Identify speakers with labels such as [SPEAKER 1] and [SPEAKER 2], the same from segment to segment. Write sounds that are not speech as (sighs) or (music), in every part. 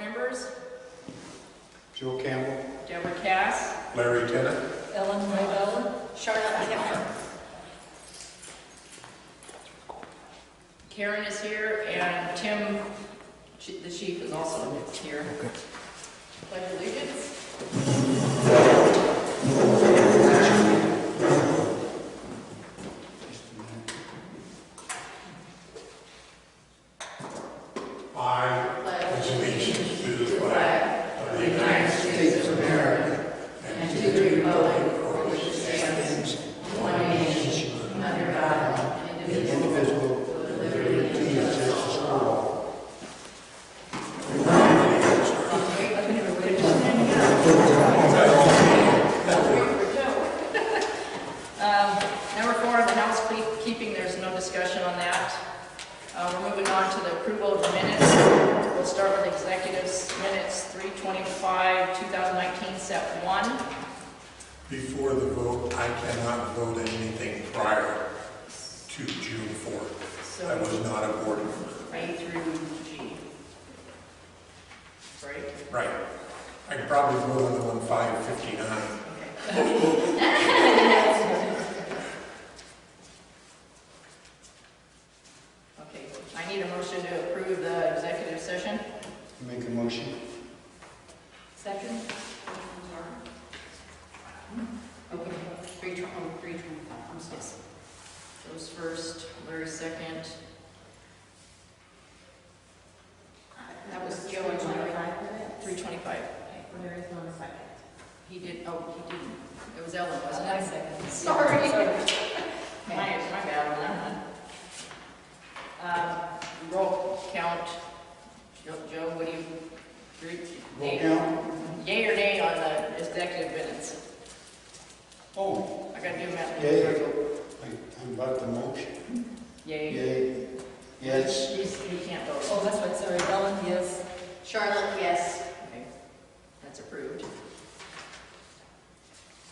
[SPEAKER 1] members,
[SPEAKER 2] Joe Campbell,
[SPEAKER 1] Deborah Cass,
[SPEAKER 2] Larry Tennant,
[SPEAKER 1] Ellen Rybel,
[SPEAKER 3] Charlotte Kemper.
[SPEAKER 1] Karen is here, and Tim, chi- the chief is also here. Pledge allegiance.
[SPEAKER 4] I pledge allegiance to the flag of the United States
[SPEAKER 1] (laughs) Um, Number four, on the housekeeping, there's no discussion on that. Uh, We're moving on to the approval of minutes. We'll start with executives minutes, 325, 2019, set one.
[SPEAKER 4] Before the vote, I cannot vote anything prior to June 4th. I was not a board member.
[SPEAKER 1] A through G. Right?
[SPEAKER 4] Right. I could probably vote on the one 559.
[SPEAKER 1] Okay, I need a motion to approve the executive session.
[SPEAKER 2] make a motion.
[SPEAKER 3] Second?
[SPEAKER 1] Okay,
[SPEAKER 3] Three twen- oh, three twenty-five, I'm sorry.
[SPEAKER 1] Joe's first, Larry second.
[SPEAKER 3] That was Joe and
[SPEAKER 1] Three
[SPEAKER 3] Larry.
[SPEAKER 1] twenty-five.
[SPEAKER 3] There is not a second.
[SPEAKER 1] He did, oh, he didn't. It was Ellen, wasn't it?
[SPEAKER 3] Sorry.
[SPEAKER 1] My, my bad on that one. Um, roll count. Joe, Joe, what do you? agree?
[SPEAKER 2] Roll count?
[SPEAKER 1] Yay or nay on the executive minutes?
[SPEAKER 2] Oh,
[SPEAKER 1] I gotta do that.
[SPEAKER 2] Yay. I- I'm about the motion.
[SPEAKER 1] Yay.
[SPEAKER 2] Yay, yes,
[SPEAKER 1] You you can't vote. Oh,
[SPEAKER 5] Oh, that's right, sorry, Ellen, yes.
[SPEAKER 3] Charlotte, yes.
[SPEAKER 1] Okay, that's approved.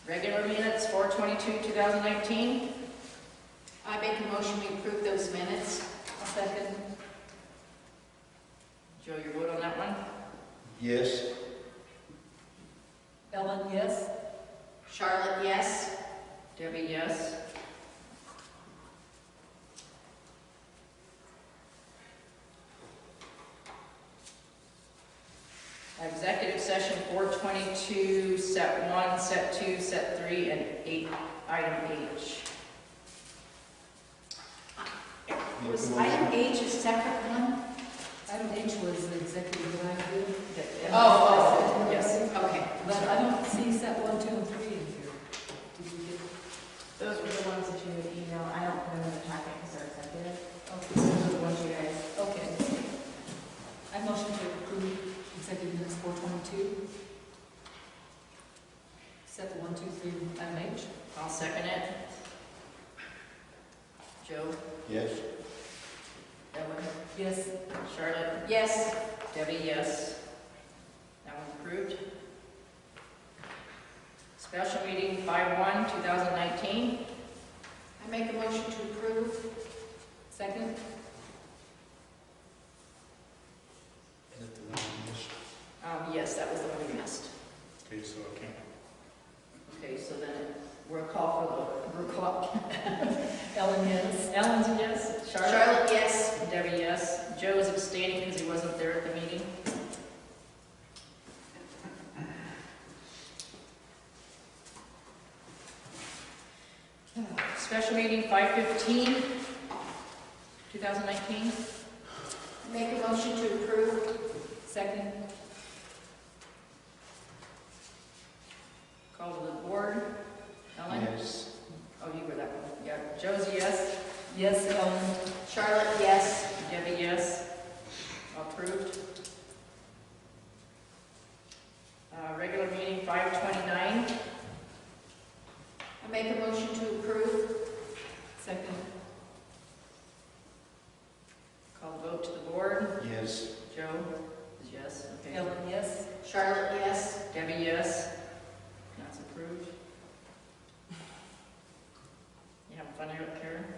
[SPEAKER 1] Regular minutes, four twenty-two, two thousand nineteen.
[SPEAKER 3] I make a motion we approve those minutes. Second.
[SPEAKER 1] Joe, your vote on that one?
[SPEAKER 2] yes.
[SPEAKER 5] Ellen, yes.
[SPEAKER 3] Charlotte, yes.
[SPEAKER 1] Debbie, yes. Executive session, four twenty-two, set one, set two, set three, and eight, item H.
[SPEAKER 2] Make a
[SPEAKER 3] Was
[SPEAKER 2] motion.
[SPEAKER 3] item H a separate one?
[SPEAKER 5] Item H was the executive that I did.
[SPEAKER 1] That-
[SPEAKER 3] Oh,
[SPEAKER 5] oh, yes.
[SPEAKER 3] Okay.
[SPEAKER 5] But I don't see set one, two, and three in here. Did you get?
[SPEAKER 6] Those were the ones that you would email, I don't put them in the packet because they're accepted. Those are the ones you guys,
[SPEAKER 5] Okay. I motion to approve executive minutes four twenty-two. Set the one, two, three, item H.
[SPEAKER 1] I'll second it. Joe,
[SPEAKER 2] Yes,
[SPEAKER 1] Ellen,
[SPEAKER 5] Yes.
[SPEAKER 1] Charlotte,
[SPEAKER 3] Yes.
[SPEAKER 1] Debbie, yes. That one approved. Special meeting five one, two thousand nineteen.
[SPEAKER 3] I make a motion to approve.
[SPEAKER 5] Second?
[SPEAKER 2] Is that the one I missed?
[SPEAKER 1] Um, yes, that was the one we missed.
[SPEAKER 2] Okay, so I can't.
[SPEAKER 1] Okay, so then we'll call for the, we'll call. (laughs)
[SPEAKER 5] Ellen, yes.
[SPEAKER 1] Ellen's a yes, Charlotte,
[SPEAKER 3] Charlotte, yes.
[SPEAKER 1] Debbie, yes. Joe is abstaining because he wasn't there at the meeting. (sighs) Special meeting five fifteen, two thousand nineteen.
[SPEAKER 3] I Make a motion to approve.
[SPEAKER 5] Second?
[SPEAKER 1] Call to the board. Ellen?
[SPEAKER 2] Yes,
[SPEAKER 1] Oh, you were that one. Yeah. Josie, yes.
[SPEAKER 5] Yes, Ellen.
[SPEAKER 3] Charlotte, yes.
[SPEAKER 1] Debbie, yes. Approved. Uh, Regular meeting, 529.
[SPEAKER 3] I make a motion to approve.
[SPEAKER 5] Second?
[SPEAKER 1] Call vote to the board.
[SPEAKER 2] yes.
[SPEAKER 1] Joe? is Yes. Okay.
[SPEAKER 5] Ellen, yes.
[SPEAKER 3] Charlotte, yes.
[SPEAKER 1] Debbie, yes. That's approved. You having fun out there? Um, (laughs)